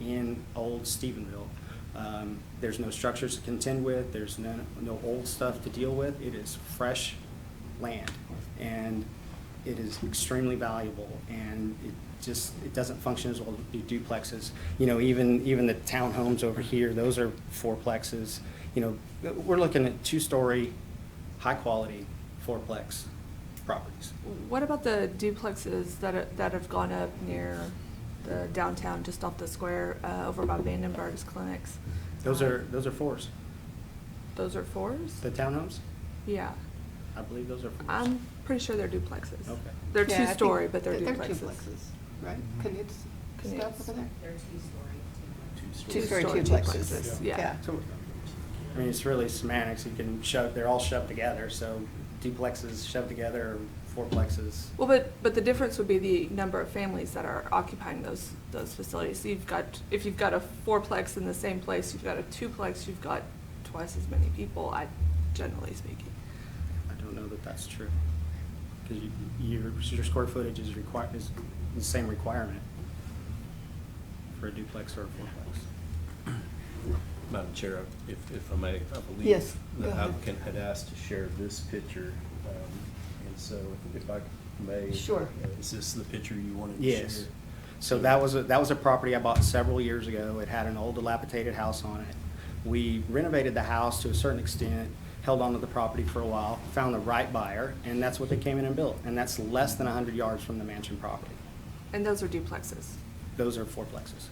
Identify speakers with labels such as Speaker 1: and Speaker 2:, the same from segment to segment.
Speaker 1: in old Stephenville. Um, There's no structures to contend with, there's no, no old stuff to deal with, it is fresh land. And it is extremely valuable, and it just, it doesn't function as well as du- duplexes. You know, even, even the townhomes over here, those are fourplexes. You know, we're looking at two-story, high-quality fourplex properties.
Speaker 2: What about the duplexes that, are- that have gone up near the downtown, just off the square, uh, over by Vandenberg's clinics?
Speaker 1: Those
Speaker 2: Uh,
Speaker 1: are, those are fours.
Speaker 2: Those are fours?
Speaker 1: The townhomes,
Speaker 2: Yeah,
Speaker 1: I believe those are 4s
Speaker 2: I'm pretty sure they're duplexes.
Speaker 1: Okay.
Speaker 2: They're
Speaker 3: Yeah, I think
Speaker 2: two-story, but they're
Speaker 3: that
Speaker 2: duplexes.
Speaker 3: right? Canutes stuff
Speaker 2: Canutes.
Speaker 3: over there?
Speaker 4: They're two-story.
Speaker 3: Two-story
Speaker 2: Two-story
Speaker 3: duplexes,
Speaker 2: duplexes, yeah.
Speaker 3: yeah.
Speaker 1: So, I mean, it's really semantics, you can shove, they're all shoved together, so duplexes shoved together, or fourplexes.
Speaker 2: Well, but, but the difference would be the number of families that are occupying those, those facilities. So You've got, if you've got a fourplex in the same place, you've got a twoplex, you've got twice as many people, I, generally speaking.
Speaker 1: I don't know that that's true. Because your, your square footage is required, is the same requirement for a duplex or a fourplex.
Speaker 5: Madam Chair, if, if I may, I believe.
Speaker 3: Yes, go
Speaker 5: The
Speaker 3: ahead.
Speaker 5: applicant had asked to share this picture, um, and so if I may.
Speaker 3: Sure.
Speaker 5: uh, Is this the picture you wanted to share?
Speaker 1: Yes. So that was, a that was a property I bought several years ago. It had an old dilapidated house on it. We renovated the house to a certain extent, held onto the property for a while, found the right buyer, and that's what they came in and built. And that's less than hundred yards from the mansion property.
Speaker 2: And those are duplexes.
Speaker 1: Those are fourplexes.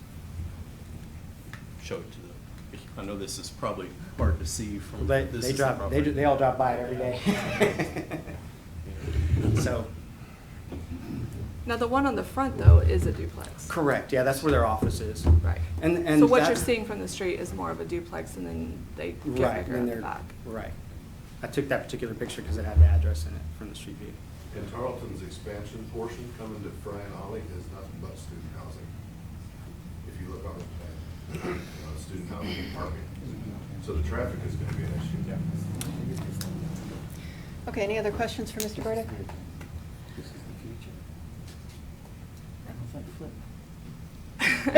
Speaker 5: Show it to the, I know this is probably hard to see from.
Speaker 1: They,
Speaker 5: this
Speaker 1: they
Speaker 5: is the
Speaker 1: drive, they,
Speaker 5: property.
Speaker 1: they all drive by it every day. So,
Speaker 2: Now, the one on the front, though, is a duplex.
Speaker 1: correct, yeah, that's where their office is.
Speaker 2: Right.
Speaker 1: And, and.
Speaker 2: So what
Speaker 1: that-
Speaker 2: you're seeing from the street is more of a duplex, and then they get
Speaker 1: Right,
Speaker 2: bigger
Speaker 1: and
Speaker 2: in the
Speaker 1: they're,
Speaker 2: back.
Speaker 1: right. I took that particular picture because it had the address in it from the street view.
Speaker 6: And Tarleton's expansion portion coming to Fry and Ollie is nothing but student housing. If you look on the plan, uh, student housing and parking. So the traffic is gonna be an issue.
Speaker 3: Okay, any other questions for Mr. Burdick? You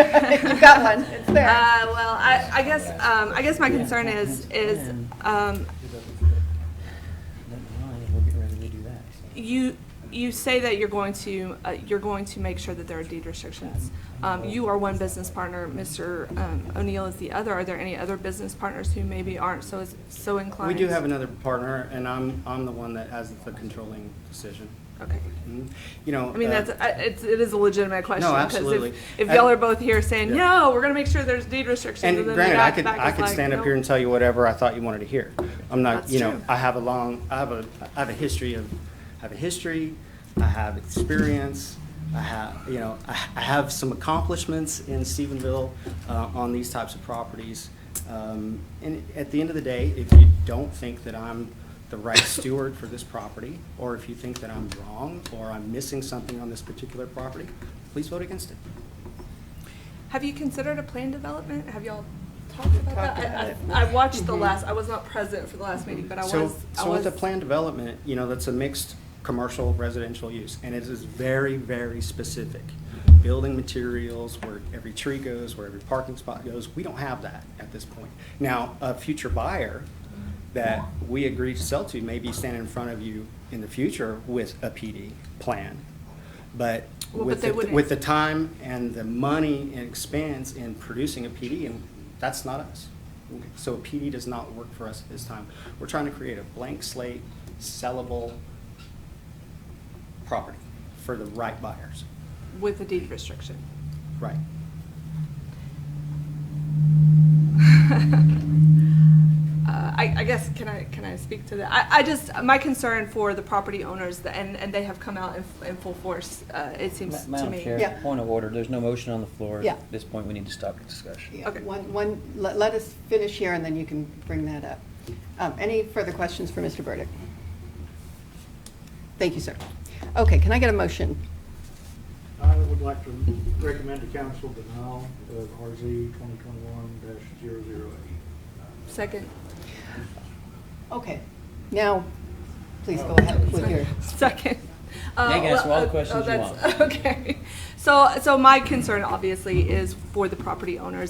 Speaker 3: got one, it's there.
Speaker 2: Uh, well, I, I guess, um, I guess my concern is, is, um,
Speaker 7: We'll get ready to do that. so.
Speaker 2: you, you say that you're going to, uh, you're going to make sure that there are deed restrictions. Um, you are one business partner, Mr. um, O'Neill is the other. Are there any other business partners who maybe aren't so, so
Speaker 1: We
Speaker 2: inclined?
Speaker 1: do have another partner, and I'm, I'm the one that has the controlling decision.
Speaker 2: Okay.
Speaker 1: Mhm. You know.
Speaker 2: I mean,
Speaker 1: uh,
Speaker 2: that's, I- it's, it is a legitimate question. 'cause if-
Speaker 1: absolutely.
Speaker 2: If
Speaker 1: I-
Speaker 2: y'all are both here saying,
Speaker 1: Yeah.
Speaker 2: no, we're gonna make sure there's deed restrictions.
Speaker 1: And
Speaker 2: then the
Speaker 1: granted, I
Speaker 2: back-
Speaker 1: could,
Speaker 2: back
Speaker 1: I
Speaker 2: is
Speaker 1: could
Speaker 2: like,
Speaker 1: stand up
Speaker 2: "No."
Speaker 1: here and tell you whatever I thought you wanted to hear. I'm not,
Speaker 2: That's
Speaker 1: you know,
Speaker 2: true.
Speaker 1: I have a long, I have a, I have a history of, I have a history, I have experience, I have, you know, I I have some accomplishments in Stephenville uh, on these types of properties. Um, And at the end of the day, if you don't think that I'm the right steward for this property, or if you think that I'm wrong, or I'm missing something on this particular property, please vote against it.
Speaker 2: Have you considered a plan development? Have y'all talked about
Speaker 3: Talked
Speaker 2: that?
Speaker 3: about
Speaker 2: I- I, I
Speaker 3: it.
Speaker 2: watched the
Speaker 3: Mhm.
Speaker 2: last, I was not present for the last meeting, but I was, I
Speaker 1: Mm-hmm. So,
Speaker 2: was.
Speaker 1: so with the planned development, you know, that's a mixed commercial residential use, and it is very, very specific. Building materials, where every tree goes, where every parking spot goes, we don't have that at this point. Now, a future buyer that we agree to sell to may be standing in front of you in the future with a PD plan. But
Speaker 2: Well, but
Speaker 1: with,
Speaker 2: they
Speaker 1: the-
Speaker 2: wouldn't-
Speaker 1: with the time and the money and expense in producing a PD, and that's not us. So a PD does not work for us at this time. We're trying to create a blank slate, sellable property for the right buyers.
Speaker 2: With a deed restriction.
Speaker 1: Right.
Speaker 2: Uh, I, I guess, can I, can I speak to that? I, I just, my concern for the property owners, the- and, and they have come out in, in full force, uh, it
Speaker 7: Ma-
Speaker 2: seems to me.
Speaker 7: Madam Chair,
Speaker 3: Yeah.
Speaker 7: point of order, there's no motion on the floor.
Speaker 3: Yeah.
Speaker 7: At this point, we need to stop the discussion.
Speaker 3: Yeah,
Speaker 2: Okay.
Speaker 3: One, one, let, let us finish here and then you can bring that up. Um, any further questions for Mr. Burdick? Thank you, sir. Okay, can I get a motion?
Speaker 8: I would like to recommend to council denial of RZ 2021-008.
Speaker 2: Second.
Speaker 3: Okay, now, please go ahead with your.
Speaker 2: Second. Uh,
Speaker 7: You can ask all the
Speaker 2: well,
Speaker 7: questions you
Speaker 2: that's-
Speaker 7: want.
Speaker 2: Okay. So, so my concern obviously is for the property owners